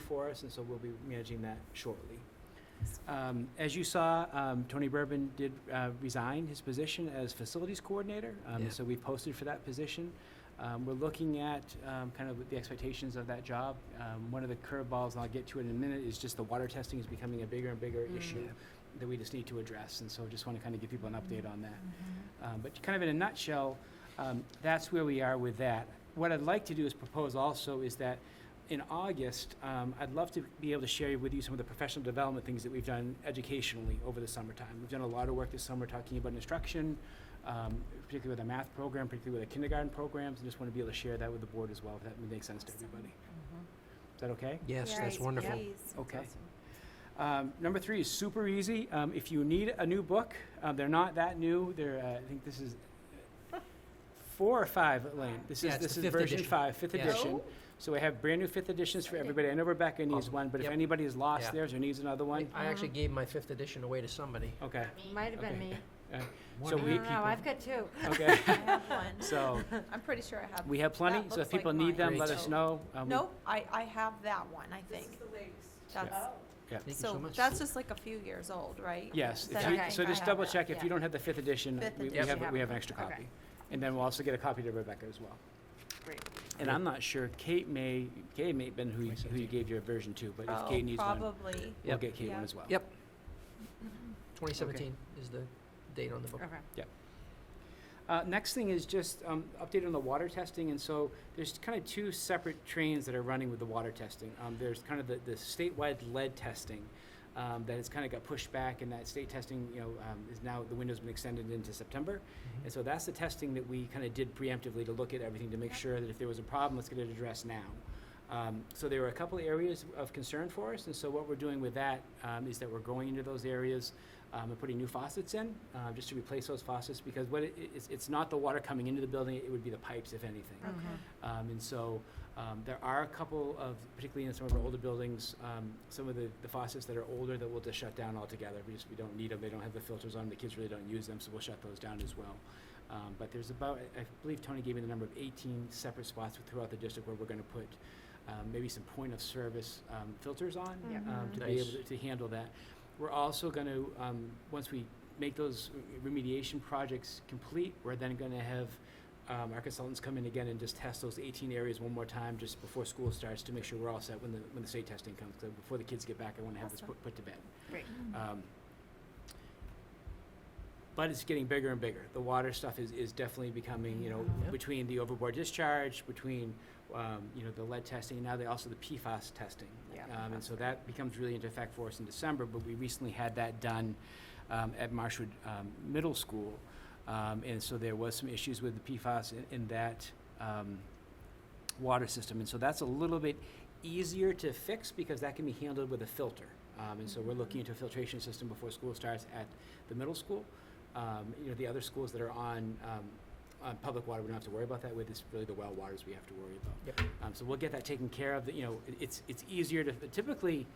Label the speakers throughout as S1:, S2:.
S1: for us, and so we'll be managing that shortly. Um, As you saw, um, Tony Bourbon did uh, resign his position as facilities coordinator, um,
S2: Yeah.
S1: so we posted for that position. Um, We're looking at um, kind of the expectations of that job. Um, One of the curveballs, and I'll get to it in a minute, is just the water testing is becoming a bigger and bigger
S3: Mm.
S1: issue that we just need to address, and so just want to kind of give people an update on that. Um, But kind of in a nutshell, um, that's where we are with that. What I'd like to do is propose also is that in August, um, I'd love to be able to share with you some of the professional development things that we've done educationally over the summertime. We've done a lot of work this summer talking about instruction, um, particularly with a math program, particularly with the kindergarten programs, and just want to be able to share that with the board as well, if that makes sense to everybody. Is that okay?
S2: Yes, that's
S3: Yes,
S2: wonderful.
S3: please.
S1: Okay. Um, number three is super easy. Um, if you need a new book, uh, they're not that new. They're, uh, I think this is four or five, Elaine. This
S2: Yeah,
S1: is
S2: it's
S1: this
S2: the
S1: is
S2: fifth
S1: version
S2: edition.
S1: five, fifth
S2: Yeah.
S1: edition. So we have brand new fifth editions for
S3: Exciting.
S1: everybody. I know Rebecca needs
S2: Oh,
S1: one, but if
S2: yep.
S1: anybody has lost
S2: Yeah.
S1: theirs or needs another one,
S2: I actually
S3: Mhm.
S2: gave my fifth edition away to somebody.
S1: okay,
S3: Might have been
S1: Okay.
S3: me.
S1: So
S3: I
S1: we-
S3: don't know, I've got two.
S1: okay.
S4: I have one.
S1: so
S4: I'm pretty sure I have.
S1: we have plenty.
S4: That
S1: So if
S4: looks like
S1: people need
S4: mine.
S1: them,
S2: Great.
S1: let us know. Um, we-
S4: Nope, I, I have that one, I think. That's-
S2: Thank you so
S4: So
S2: much.
S4: that's just like a few years old, right?
S1: Yes, if
S4: That
S1: you-
S4: I
S1: so
S4: think I
S1: just
S4: have
S1: double
S4: that.
S1: check, if you
S4: Yeah.
S1: don't have the fifth edition,
S4: Fifth
S1: we we
S4: edition,
S1: have,
S4: you
S1: we
S4: have
S1: have an extra
S4: Okay.
S1: copy. And then we'll also get a copy to Rebecca as well.
S4: Great.
S1: And I'm not sure, Kate may, Kate may have been who you, who you gave your version to, but if
S4: Oh,
S1: Kate needs one,
S4: Probably.
S1: we'll
S2: Yep.
S1: get Kate one
S4: Yeah.
S1: as well.
S2: Yep. 2017 is the date
S1: Oh.
S2: on the book.
S3: Okay.
S1: Uh, next thing is just, um, update on the water testing, and so there's kind of two separate trains that are running with the water testing. Um, there's kind of the, the statewide lead testing, um, that has kind of got pushed back, and that state testing, you know, um, is now, the window's been extended into September. And so that's the testing that we kind of did preemptively to look at everything to make sure that if there was a problem, let's get it addressed now. Um, so there were a couple of areas of concern for us, and so what we're doing with that um, is that we're going into those areas um, and putting new faucets in, uh, just to replace those faucets, because what it, it's, it's not the water coming into the building, it would be the pipes, if anything. Um, and so, um, there are a couple of, particularly in some of our older buildings, um, some of the, the faucets that are older that we'll just shut down altogether. We just, we don't need them, they don't have the filters on, 'em, the kids really don't use them, so we'll shut those down as well. Um, but there's about, I I believe Tony gave me the number of eighteen separate spots throughout the district where we're gonna put, um, maybe some point of service, um, filters on,
S3: Yeah.
S1: um, to be
S2: Nice.
S1: able to, to handle that. We're also gonna, um, once we make those remediation projects complete, we're then gonna have um, our consultants come in again and just test those 18 areas one more time just before school starts to make sure we're all set when the, when the state testing comes. 'Cause before the kids get back, I want to have this
S4: Awesome.
S1: put, put to bed.
S3: Great.
S1: Um, but it's getting bigger and bigger. The water stuff is, is definitely becoming, you know,
S2: Yeah.
S1: between the overboard discharge, between, um, you know, the lead testing, now they also the PFAS testing.
S3: Yeah,
S1: Um, and so that becomes really into effect for us in December, but we recently had that done, um, at Marshwood, um, Middle School. Um, and so there was some issues with the PFAS in, in that, um, water system. And so that's a little bit easier to fix because that can be handled with a filter. Um, and so we're looking into a filtration system before school starts at the middle school. Um, you know, the other schools that are on, um, on public water, we don't have to worry about that with. It's really the well waters we have to worry about.
S2: Yep.
S1: Um, so we'll get that taken care of. The- You know, it- it's, it's easier to, typically,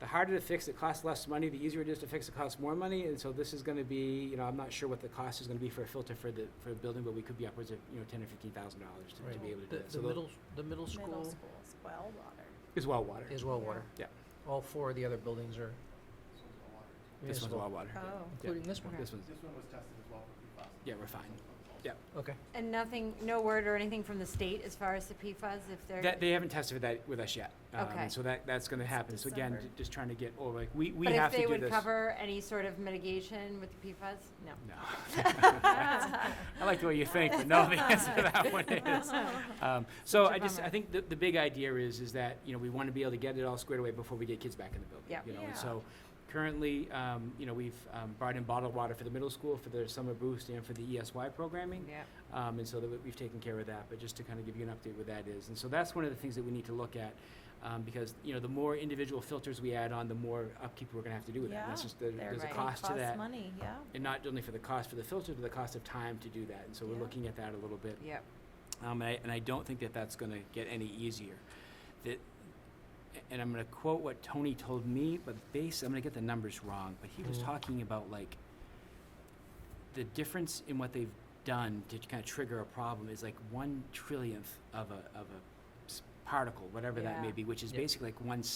S1: the harder to fix, it costs less money. The easier it is to fix, it costs more money. And so this is gonna be, you know, I'm not sure what the cost is gonna be for a filter for the, for a building, but we could be upwards of, you know, ten or fifteen thousand dollars to, to
S2: Right.
S1: be able to do
S2: The,
S1: that.
S2: the
S1: So tho-
S2: middle, the middle
S4: Middle
S2: school
S4: schools, well water.
S1: is well water.
S2: is well water.
S1: Yeah.
S2: All four of the other buildings are
S1: This one's
S2: municipal,
S1: well water.
S4: Oh.
S2: Including this one.
S1: This one's,
S5: This one was tested as well for PFAS.
S1: yeah, we're fine.
S2: Okay.
S3: And nothing, no word or anything from the state as far as the PFAS, if they're.
S1: That, they haven't tested with that with us yet. Um,
S3: Okay.
S1: So that, that's gonna happen. So again,
S4: December.
S1: j- just trying to get, over. like, we, we
S3: But
S1: have
S3: if
S1: to do
S3: they
S1: this.
S3: would cover any sort of mitigation with the PFAS, no.
S1: No.
S4: Oh.
S1: I like the way you think, but no, the answer to that one is. Um, so
S3: Such a
S1: I just,
S3: bummer.
S1: I think the, the big idea is, is that, you know, we want to be able to get it all squared away before we get kids back in the building.
S3: Yep.
S1: You know,
S4: Yeah.
S1: and so currently, um, you know, we've, um, brought in bottled water for the middle school, for the summer boost and for the ESY programming.
S3: Yeah.
S1: Um, and so that we- we've taken care of that, but just to kind of give you an update what that is. And so that's one of the things that we need to look at, um, because, you know, the more individual filters we add on, the more upkeep we're gonna have to do with that. And That's
S4: Yeah,
S1: just, there-
S3: they're
S1: there's a
S3: right.
S1: cost to
S4: Costs
S1: that.
S4: money, yeah.
S1: And not only for the cost for the filter, but the cost of time to do that. And so we're
S4: Yeah.
S1: looking at that a little bit.
S3: Yep.
S1: Um, and I, and I don't think that that's gonna get any easier. That, and I'm gonna quote what Tony told me, but base, I'm gonna get the numbers wrong, but he was
S2: Mhm.
S1: talking about like, the difference in what they've done to kind of trigger a problem is like one trillionth of a, of a s- particle, whatever that may
S3: Yeah.
S1: be, which is
S2: Yep.
S1: basically like one